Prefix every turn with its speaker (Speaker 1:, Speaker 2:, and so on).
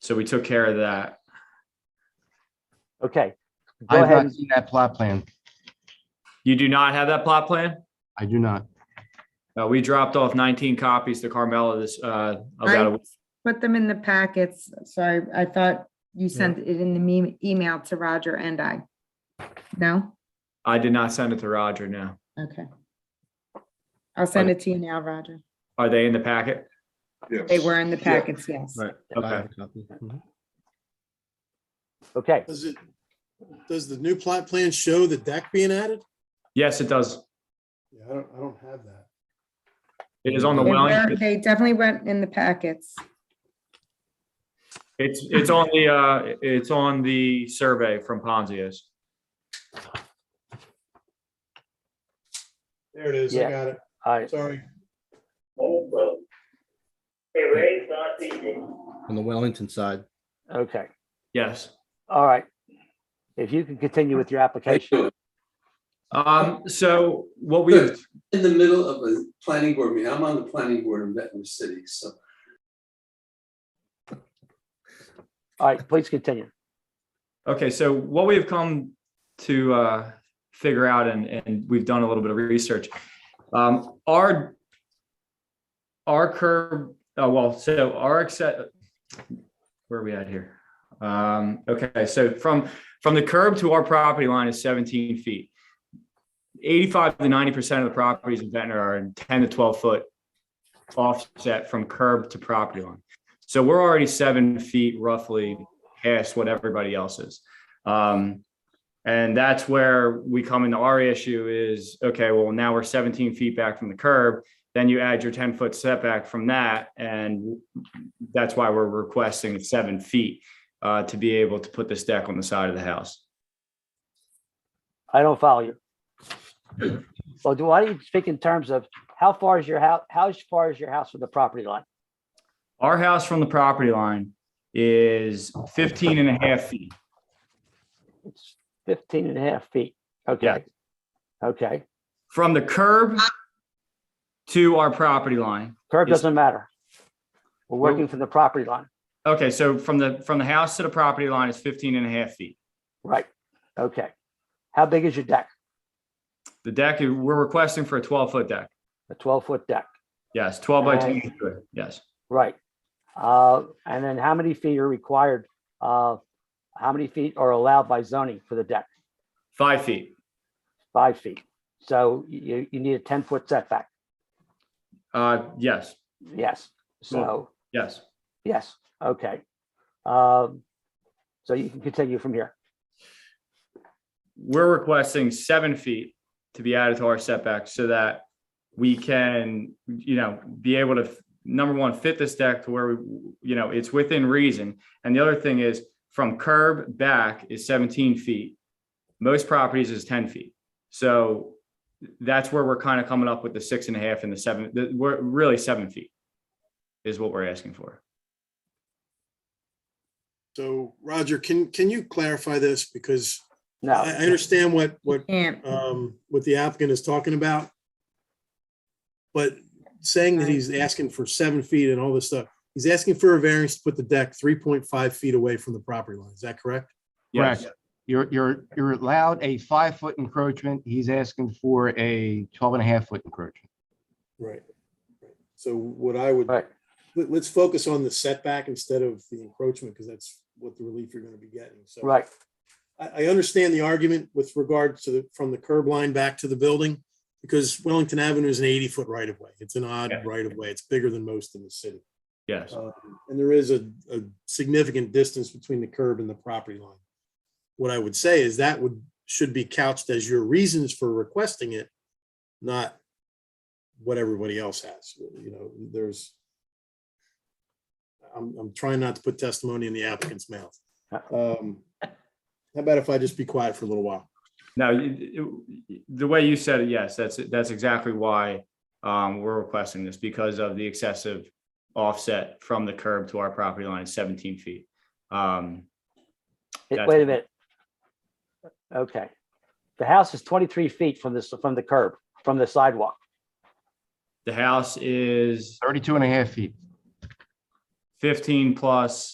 Speaker 1: So we took care of that.
Speaker 2: Okay. Go
Speaker 3: I've
Speaker 2: ahead.
Speaker 3: not seen that plot plan.
Speaker 1: You do not have that plot plan?
Speaker 3: I do not.
Speaker 1: Uh, we dropped off nineteen copies to Carmella this, uh, about a
Speaker 4: I put them in the packets. Sorry, I thought you sent it in the me- email to Roger and I. No?
Speaker 1: I did not send it to Roger now.
Speaker 4: Okay. I'll send it to you now, Roger.
Speaker 1: Are they in the packet?
Speaker 4: They were in the packets, yes.
Speaker 1: Right. Okay.
Speaker 2: Okay.
Speaker 5: Does it, does the new plot plan show the deck being added?
Speaker 1: Yes, it does.
Speaker 5: Yeah, I don't, I don't have that.
Speaker 1: It is on the
Speaker 4: They were-
Speaker 1: Wellington,
Speaker 4: They definitely went in the packets.
Speaker 1: it's, it's on the, uh, it's on the survey from Ponzius.
Speaker 5: There it is. I
Speaker 2: Yeah.
Speaker 5: got it.
Speaker 2: All right.
Speaker 5: Sorry.
Speaker 6: on the Wellington side.
Speaker 2: Okay.
Speaker 1: Yes.
Speaker 2: All right. If you can continue with your application.
Speaker 1: Um, so what we,
Speaker 7: Good. in the middle of a planning board meeting. I'm on the planning board in Ventnor City, so
Speaker 2: All right, please continue.
Speaker 1: Okay, so what we've come to uh, figure out, and, and we've done a little bit of research, um, our our curb, uh, well, so our accept, where are we at here? Um, okay, so from from the curb to our property line is 17 feet. 85 to 90 percent of the properties in Ventnor are in 10 to 12 foot offset from curb to property line. So we're already seven feet roughly past what everybody else is. Um, and that's where we come into our issue is, okay, well, now we're 17 feet back from the curb. Then you add your 10 foot setback from that. And that's why we're requesting seven feet uh, to be able to put this deck on the side of the house.
Speaker 2: I don't follow you. Well, do I need to speak in terms of how far is your house, how far is your house from the property line?
Speaker 1: Our house from the property line is 15 and a half feet.
Speaker 2: It's 15 and a half feet. Okay. Okay.
Speaker 1: From the curb to our property line
Speaker 2: Curb
Speaker 1: Yes.
Speaker 2: doesn't matter. We're working from the property line.
Speaker 1: Okay, so from the, from the house to the property line is 15 and a half feet.
Speaker 2: Right. Okay. How big is your deck?
Speaker 1: The deck, we're requesting for a 12-foot deck.
Speaker 2: A 12 foot deck.
Speaker 1: Yes, 12 by
Speaker 2: Uh,
Speaker 1: 10, is good. yes.
Speaker 2: Right. Uh, and then how many feet are required? Uh, how many feet are allowed by zoning for the deck?
Speaker 1: Five feet.
Speaker 2: Five feet. So you, you need a ten foot setback.
Speaker 1: Uh, yes,
Speaker 2: Yes. So,
Speaker 1: yes.
Speaker 5: Hmm.
Speaker 2: yes, okay. Um, so you can continue from here.
Speaker 1: We're requesting seven feet to be added to our setback so that we can, you know, be able to, number one, fit this deck to where we, you know, it's within reason. And the other thing is from curb back is 17 feet. Most properties is 10 feet. So that's where we're kind of coming up with the six and a half and the seven, the, we're really seven feet is what we're asking for.
Speaker 5: So Roger, can, can you clarify this? Because I, I
Speaker 2: No,
Speaker 5: understand what, what,
Speaker 4: Can't.
Speaker 5: um, what the applicant is talking about. But saying that he's asking for seven feet and all this stuff, he's asking for a variance to put the deck three point five feet away from the property line. Is that correct?
Speaker 1: Yes.
Speaker 3: Correct. You're, you're, you're allowed a five foot encroachment. He's asking for a 12 and a half foot encroachment.
Speaker 5: Right. So what I would,
Speaker 2: Right.
Speaker 5: let, let's focus on the setback instead of the encroachment, because that's what the relief you're gonna be getting. So.
Speaker 2: right,
Speaker 5: I, I understand the argument with regard to the, from the curb line back to the building, because Wellington Avenue is an eighty-foot right-of-way. It's an odd
Speaker 1: Yeah.
Speaker 5: right-of-way. It's bigger than most in the city.
Speaker 1: Yes.
Speaker 5: Uh, And there is a, a significant distance between the curb and the property line. What I would say is that would, should be couched as your reasons for requesting it, not what everybody else has, you know, there's I'm, I'm trying not to put testimony in the applicant's mouth. Um, How about if I just be quiet for a little while?
Speaker 1: No, you- you- the way you said it, yes, that's, that's exactly why um, we're requesting this because of the excessive offset from the curb to our property line, is 17 feet. Um,
Speaker 2: It-
Speaker 1: That's-
Speaker 2: wait a minute. Okay. The house is twenty-three feet from this, from the curb, from the sidewalk.
Speaker 1: The house is
Speaker 3: 32 and a half feet.
Speaker 1: 15 plus